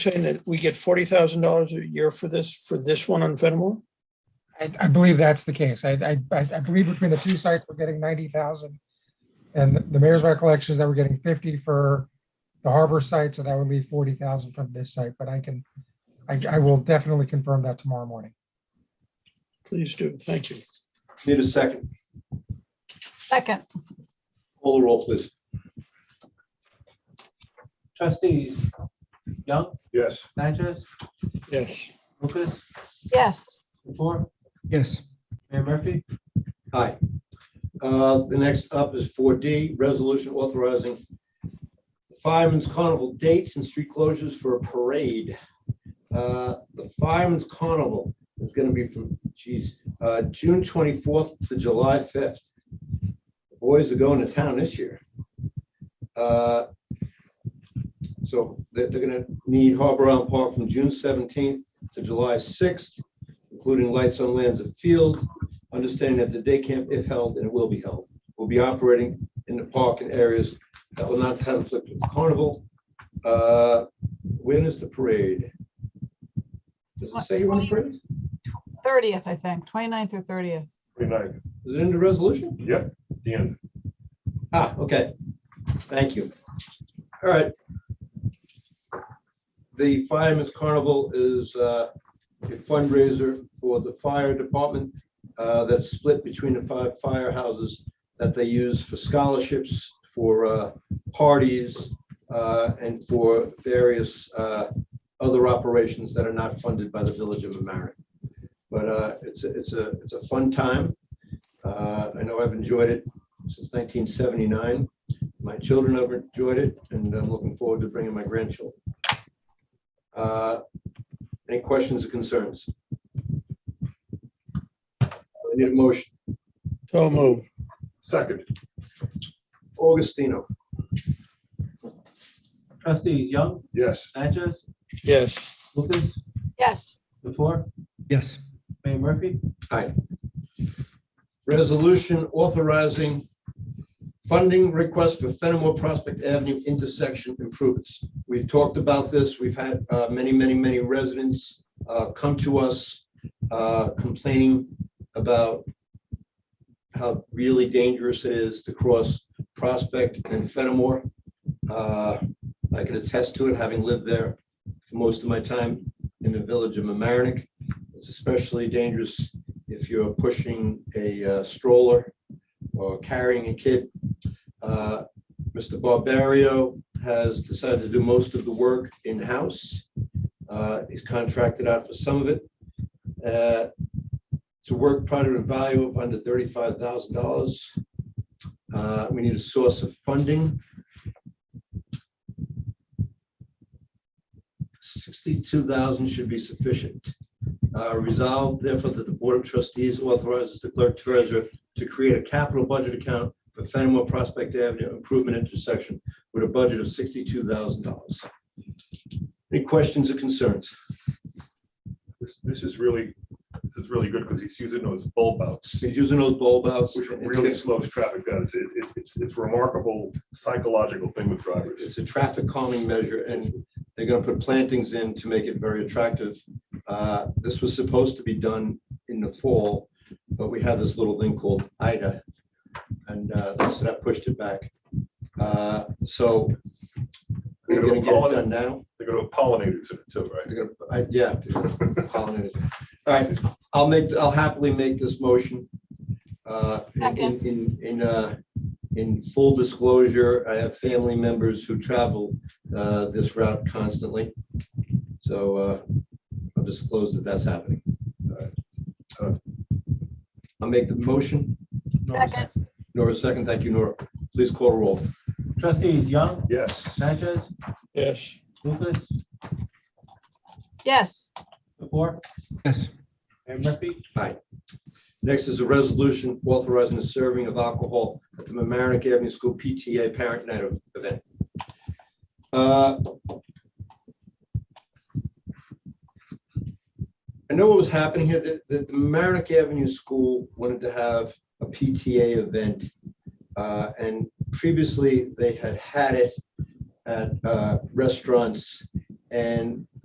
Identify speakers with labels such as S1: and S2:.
S1: saying that we get forty thousand dollars a year for this, for this one on Fenimore?
S2: I, I believe that's the case. I, I, I I believe between the two sites, we're getting ninety thousand. And the mayor's recollection is that we're getting fifty for the harbor site, so that would leave forty thousand from this site, but I can, I, I will definitely confirm that tomorrow morning.
S1: Please do. Thank you.
S3: Need a second.
S4: Second,
S3: Call the roll, please.
S5: Trustees Young,
S3: Yes.
S5: Natchez,
S1: Yes.
S5: Lucas,
S4: yes.
S5: Latour,
S6: yes,
S5: Mayor Murphy.
S3: Aye. Uh, The next up is four D, resolution authorizing Fireman's Carnival dates and street closures for a parade. Uh, The Fireman's Carnival is going to be from, geez, uh, June twenty-fourth to July fifth. The Boys are going to town this year. Uh, So they're going to need Harbor Island Park from June seventeenth to July sixth, including lights on lands of field, understanding that the day camp, if held, and it will be held, will be operating in the park in areas that will not conflict with the carnival. Uh, When is the parade? Does it say when the parade? is?
S4: 30th, I think, 29th or 30th.
S7: Twenty-ninth,
S3: Is it in the resolution?
S7: yep, the end.
S3: Ah, okay. Thank you. All right. The Fireman's Carnival is uh, a fundraiser for the fire department uh, that's split between the five firehouses that they use for scholarships, for uh, parties, uh, and for various uh, other operations that are not funded by the village of Mamaronek. But uh, it's, a- it's a, it's a fun time. Uh, I know I've enjoyed it since nineteen seventy-nine. My children have enjoyed it, and I'm looking forward to bringing my grandchildren. Uh, Any questions or concerns? I need a motion.
S1: So move.
S7: Second,
S3: Augustino,
S5: Trustees Young,
S7: yes,
S5: Natchez,
S1: Yes.
S5: Lucas,
S4: Yes,
S5: Latour,
S6: yes,
S5: Mayor Murphy.
S3: resolution authorizing funding request for Fenimore Prospect Avenue intersection improvements. We've talked about this. We've had uh, many, many, many residents uh, come to us uh, complaining about how really dangerous it is to cross Prospect and Fenimore. Uh, I can attest to it, having lived there for most of my time in the village of Mamaronek. It's especially dangerous if you're pushing a uh, stroller or carrying a kid. Uh, Mr. Barbario has decided to do most of the work in-house. Uh, He's contracted out for some of it. Uh, It's a work project of value of under thirty-five thousand dollars. Uh, We need a source of funding. Sixty-two thousand dollars should be sufficient. Uh, Resolved therefore that the Board of Trustees authorizes the clerk treasurer to create a capital budget account for Fenimore Prospect Avenue improvement intersection with a budget of sixty-two thousand dollars. Any questions or concerns?
S7: this, this is really, this is really good because he's using those bulb outs,
S3: He's using those bulb outs.
S7: which really slows traffic down. It's, it- it's, it's remarkable psychological thing with drivers.
S3: It's a traffic calming measure and they're gonna put plantings in to make it very attractive. Uh, This was supposed to be done in the fall, but we had this little thing called Ida. And uh, so that pushed it back. Uh, So we're gonna get it done now.
S7: They're gonna have pollinators in it too, right?
S3: They're gonna- I- Yeah. pollinators. All right, I'll make, I'll happily make this motion. Uh, in-
S4: Second.
S3: In, in, uh, in full disclosure, I have family members who travel uh, this route constantly. So uh, I'll disclose that that's happening. All right. Uh, I'll make the motion.
S4: second,
S3: Nora, second. Thank you, Nora. Please call the roll.
S5: Trustees Young,
S7: Yes,
S5: Natchez,
S1: Yes.
S5: Lucas,
S4: yes.
S5: Latour,
S6: yes.
S5: Mayor Murphy.
S3: Next is a resolution authorizing the serving of alcohol at the Mamaronek Avenue School PTA Parent Night event. Uh, I know what was happening here, that, that the Mamaronek Avenue School wanted to have a PTA event. uh, And previously, they had had it at uh, restaurants And